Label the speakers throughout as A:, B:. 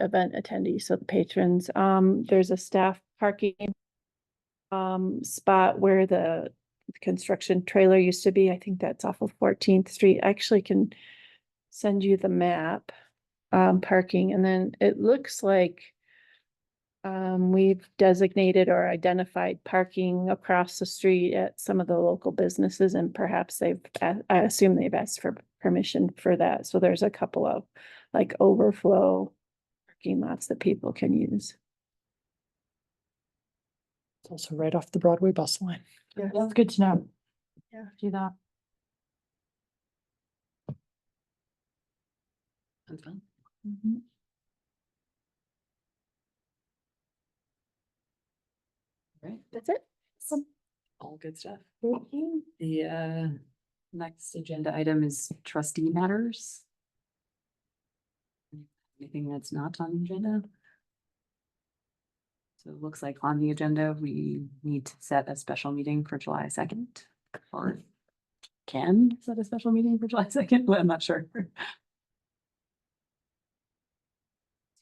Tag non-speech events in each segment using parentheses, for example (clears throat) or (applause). A: event attendees, so the patrons. Um, there's a staff parking um, spot where the construction trailer used to be. I think that's off of Fourteenth Street. I actually can send you the map, um, parking, and then it looks like um, we've designated or identified parking across the street at some of the local businesses and perhaps they've, a- I assume they've asked for permission for that. So there's a couple of like overflow parking lots that people can use.
B: It's also right off the Broadway bus line.
A: Yes.
B: That's good to know.
A: Yeah.
B: Do that.
C: Sounds fun.
A: Mm-hmm.
C: Right,
A: That's it.
C: all good stuff. The uh, next agenda item is trustee matters. Anything that's not on the agenda? So it looks like on the agenda, we need to set a special meeting for July second, or can set a special meeting for July second, (laughs) I'm not sure.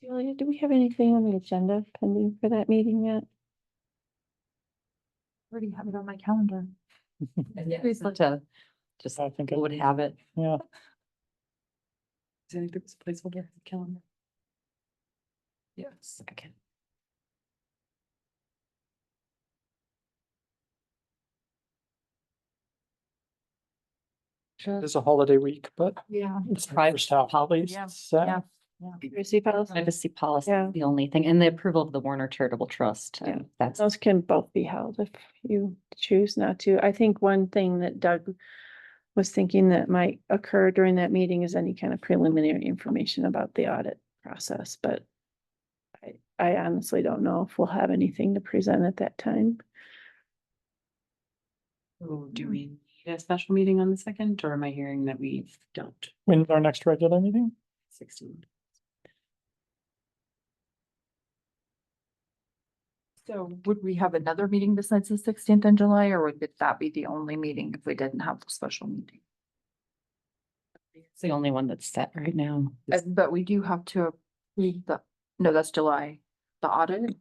A: Julia, do we have anything on the agenda pending for that meeting yet?
B: Already have it on my calendar.
C: Please let us- Just
B: I think, it-
C: would have it.
B: yeah,
C: Is there anything that's placeholder on the calendar? Yes, I can.
B: it's a holiday week, but
C: Yeah.
B: it's the first half at least.
C: Yeah,
B: so-
D: yeah.
A: Privacy policy,
D: Privacy policy
A: Um, Yeah.
D: is the only thing, and the approval of the Warner Charitable Trust.
A: Yeah.
D: um, That's,
A: those can both be held if you choose not to. I think one thing that Doug was thinking that might occur during that meeting is any kind of preliminary information about the audit process, but I, I honestly don't know if we'll have anything to present at that time.
C: Oh, do we need a special meeting on the second, or am I hearing that we don't?
B: When's our next regular meeting?
C: Sixteen.
E: So would we have another meeting besides the sixteenth in July, or would it- that be the only meeting if we didn't have the special meeting?
D: it's the only one that's set right now.
E: Uh, But we do have to, approve the, no, that's July, the audit.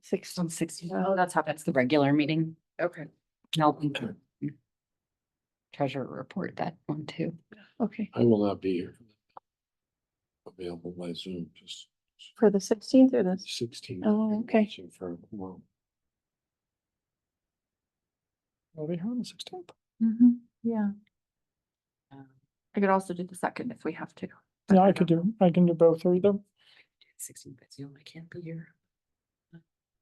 A: Six,
D: On sixty,
E: Oh, that's happened.
D: that's the regular meeting.
E: Okay.
D: And I'll link the Treasurer report that one too.
A: okay,
F: I will not be here. Available by Zoom, just
A: for the sixteenth or the
F: sixteen.
A: Oh, okay.
F: searching For, a quorum.
B: We'll be here on the sixteenth.
E: Mhm, yeah. I could also do the second if we have to.
B: Yeah, I could do, I can do both or either.
C: Sixteen, but you know, I can't be here.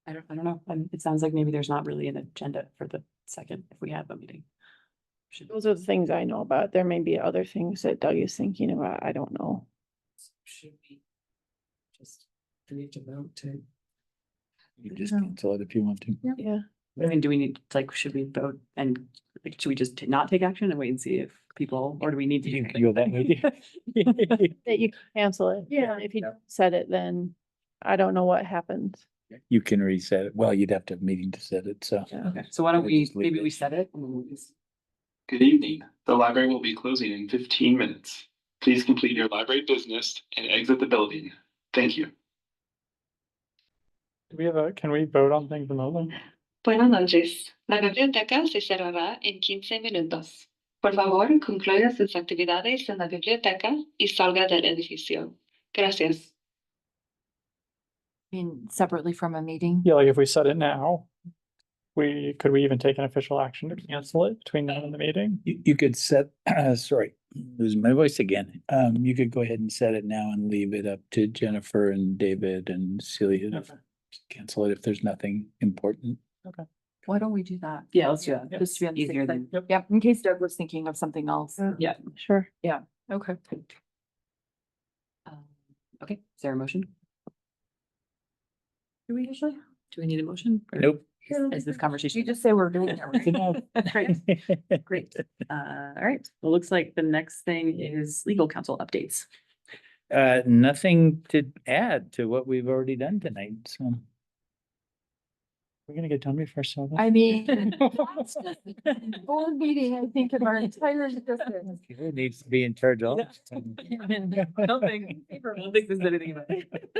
C: I don't, I don't know, Um, it sounds like maybe there's not really an agenda for the second, if we have a meeting. Should,
A: Those are the things I know about. There may be other things that Doug is thinking about. I don't know.
C: should we? Just, do we need to vote to?
F: You just cancel it if you want to.
A: Yeah.
C: I mean, do we need, like, should we vote and, like, should we just t- not take action and wait and see if people, or do we need to?
F: You can go that way.
A: That you cancel it.
E: Yeah.
A: If you said it, then I don't know what happens.
F: You can reset it. Well, you'd have to have a meeting to set it, so.
C: Okay, so why don't
F: Let's
C: we,
F: just leave
C: maybe
F: it.
C: we set it and we'll just.
G: Good evening. The library will be closing in fifteen minutes. Please complete your library business and exit the building. Thank you.
B: Do (laughs) we have a, can we vote on things remotely?
H: Buenas noches. La biblioteca se cerrará en 15 minutos. Por favor, concluya sus actividades en la biblioteca y salga del edificio. Gracias.
E: I mean, separately from a meeting.
B: Yeah, like if we set it now, we, could we even take an official action to cancel it between now and the meeting?
F: (laughs)
B: (laughs)
F: You, you could set, (clears throat) sorry, losing my voice again. Um, you could go ahead and set it now and leave it up to Jennifer and David and Celia. to
B: Okay.
F: Cancel it if there's nothing important.
E: Why don't we do that?
C: Yeah, let's do that.
E: Just to be on the
C: Easier
E: safe
C: than-
E: side. Yep, in case Doug was thinking of something else.
C: Yeah.
A: Sure.
E: Okay.
C: Um, Okay, is there a motion? Do we usually? Do we need a motion? or
F: Nope.
C: is- Is this conversation?
E: You just say we're doing it.
F: Good
C: (laughs)
F: enough.
C: Great.
E: (laughs)
C: (laughs) Great. Uh, all right. Well, looks like the next thing is legal counsel updates.
F: Uh, nothing to add to what we've already done tonight, so.
B: We're gonna get done before seven.
E: I mean,
F: (laughs)
A: (laughs)
E: that's just board meeting, I think, in our entire
C: (laughs)
E: existence.
F: It needs to be in charge all the time.
C: I don't think, I don't think there's anything about it.